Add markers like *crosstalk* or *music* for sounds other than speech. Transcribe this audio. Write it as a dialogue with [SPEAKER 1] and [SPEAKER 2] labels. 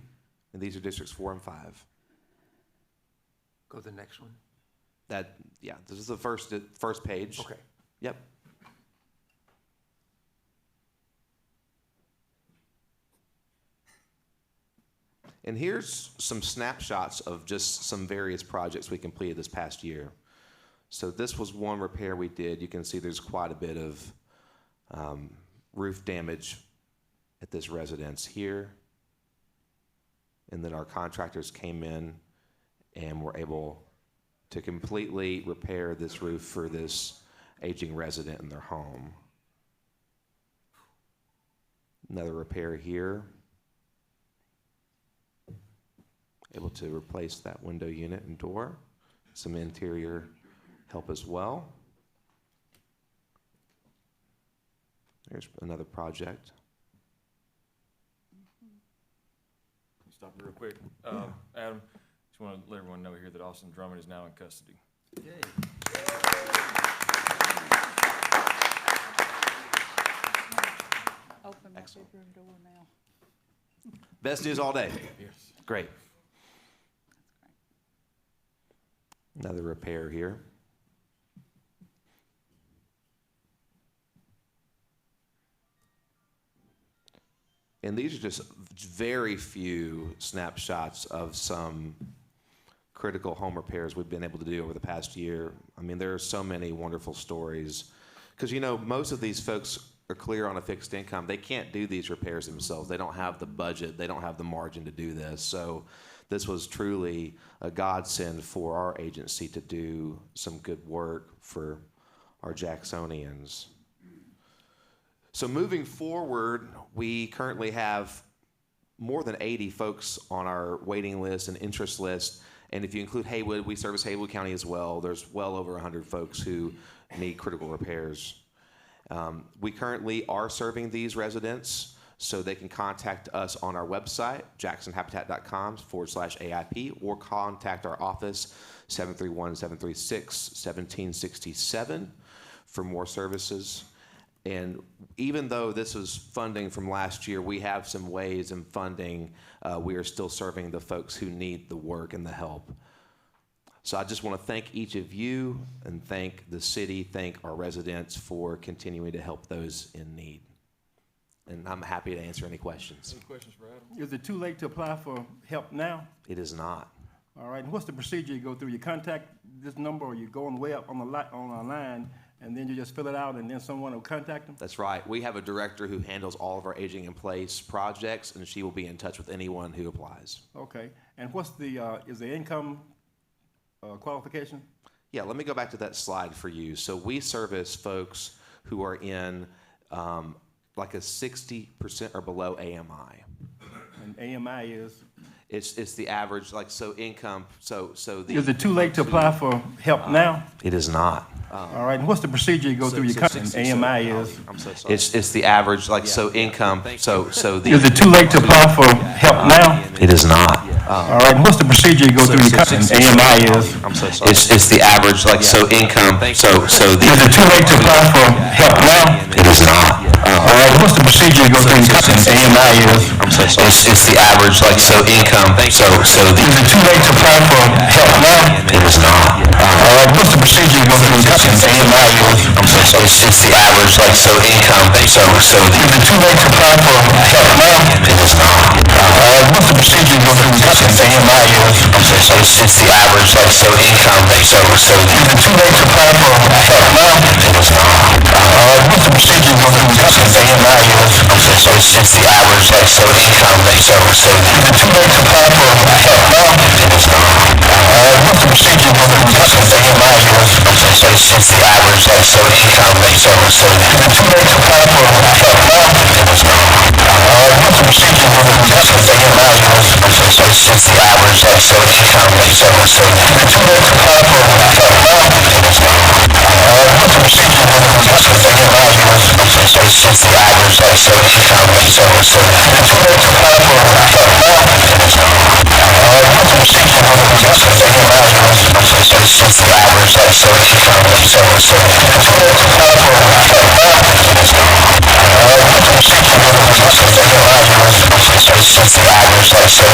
[SPEAKER 1] and these are districts four and five.
[SPEAKER 2] Go to the next one.
[SPEAKER 1] That, yeah, this is the first, first page.
[SPEAKER 2] Okay.
[SPEAKER 1] Yep. And here's some snapshots of just some various projects we completed this past year. So this was one repair we did. You can see there's quite a bit of um, roof damage at this residence here. And then our contractors came in and were able to completely repair this roof for this aging resident in their home. Another repair here. Able to replace that window unit and door. Some interior help as well. There's another project.
[SPEAKER 3] Stop real quick. Um, Adam, just want to let everyone know here that Austin Drummond is now in custody.
[SPEAKER 4] Open my
[SPEAKER 1] Excellent.
[SPEAKER 4] bedroom door now.
[SPEAKER 1] Best news all day.
[SPEAKER 3] Yes.
[SPEAKER 1] Great. Another repair here. And these are just very few snapshots of some critical home repairs we've been able to do over the past year. I mean, there are so many wonderful stories. Because, you know, most of these folks are clear on a fixed income. They can't do these repairs themselves. They don't have the budget, they don't have the margin to do this. So, this was truly a godsend for our agency to do some good work for our Jacksonians. So, moving forward, we currently have more than 80 folks on our waiting list and interest list. And if you include Haywood, we service Haywood County as well. There's well over 100 folks who need critical repairs. Um, we currently are serving these residents, so they can contact us on our website, jacksonhabitat.com forward slash AIP, or contact our office, 731 736 1767, for more services. And even though this is funding from last year, we have some ways in funding. Uh, we are still serving the folks who need the work and the help. So I just want to thank each of you and thank the city, thank our residents for continuing to help those in need. And I'm happy to answer any questions.
[SPEAKER 3] Any questions for Adam?
[SPEAKER 5] Is it too late to apply for help now?
[SPEAKER 1] It is not.
[SPEAKER 5] All right, and what's the procedure you go through? You contact this number, or you go on the way up on the li- on our line, and then you just fill it out, and then someone will contact them?
[SPEAKER 1] That's right. We have a director who handles all of our aging in place projects, and she will be in touch with anyone who applies.
[SPEAKER 5] Okay, and what's the, uh, is the income, uh, qualification?
[SPEAKER 1] Yeah, let me go back to that slide for you. So we service folks who are in um, like a 60% or below AMI.
[SPEAKER 5] And AMI is?
[SPEAKER 1] It's, it's the average, like, so income, so, so the.
[SPEAKER 5] Is it too late to apply for help now?
[SPEAKER 1] It is not.
[SPEAKER 5] All right, and what's the procedure you go
[SPEAKER 1] uh, So-
[SPEAKER 5] through?
[SPEAKER 1] so
[SPEAKER 5] You con-
[SPEAKER 1] 60 so-
[SPEAKER 5] AMI is?
[SPEAKER 1] I'm so sorry. It's, it's the average, like, so income, so, *laughs* so the.
[SPEAKER 5] Is it too late to apply for help now?
[SPEAKER 1] It is not. Um,
[SPEAKER 5] All right, and what's the procedure you go through? You
[SPEAKER 1] Uh, so- so-
[SPEAKER 5] con-
[SPEAKER 1] so-
[SPEAKER 5] AMI is?
[SPEAKER 1] I'm so sorry.
[SPEAKER 6] It's, it's the average, like, so income, so, so the.
[SPEAKER 5] Is it too late to apply for help now?
[SPEAKER 6] It is not.
[SPEAKER 5] All right, what's the procedure you go through? E You con- AMI is?
[SPEAKER 6] I'm so sorry. It's, it's the average, like, so income, so, so the.
[SPEAKER 5] Is it too late to apply for help now?
[SPEAKER 6] It is not.
[SPEAKER 5] All right, what's the procedure you go through in cutting AMI is?
[SPEAKER 6] I'm so sorry. It's, it's the average, like, so income, so, so the.
[SPEAKER 5] Is it too late to apply for help now?
[SPEAKER 6] It is not.
[SPEAKER 5] All right, what's the procedure you go through in cutting AMI is?
[SPEAKER 6] I'm so sorry. It's, it's the average, like, so income, so, so the.
[SPEAKER 5] Is it too late to apply for help now?
[SPEAKER 6] It is not.
[SPEAKER 5] All right, what's the procedure you go through in cutting AMI is?
[SPEAKER 6] I'm so sorry. It's, it's the average, like, so income, so, so the. I'm
[SPEAKER 5] Is it too late to apply for help now? All right, what's the procedure you go through in cutting AMI is?
[SPEAKER 6] so sorry. It's, it's the average, like, so income, so, so the.
[SPEAKER 5] Is it too late to apply for help now? All right, what's the procedure you go through in cutting AMI is?
[SPEAKER 6] It's the average, like, so income, so, so the.
[SPEAKER 5] Is it too late to apply for help now? All right, what's the procedure you go through in cutting AMI is?
[SPEAKER 6] It's just the average, like, so income, so, so the.
[SPEAKER 5] Is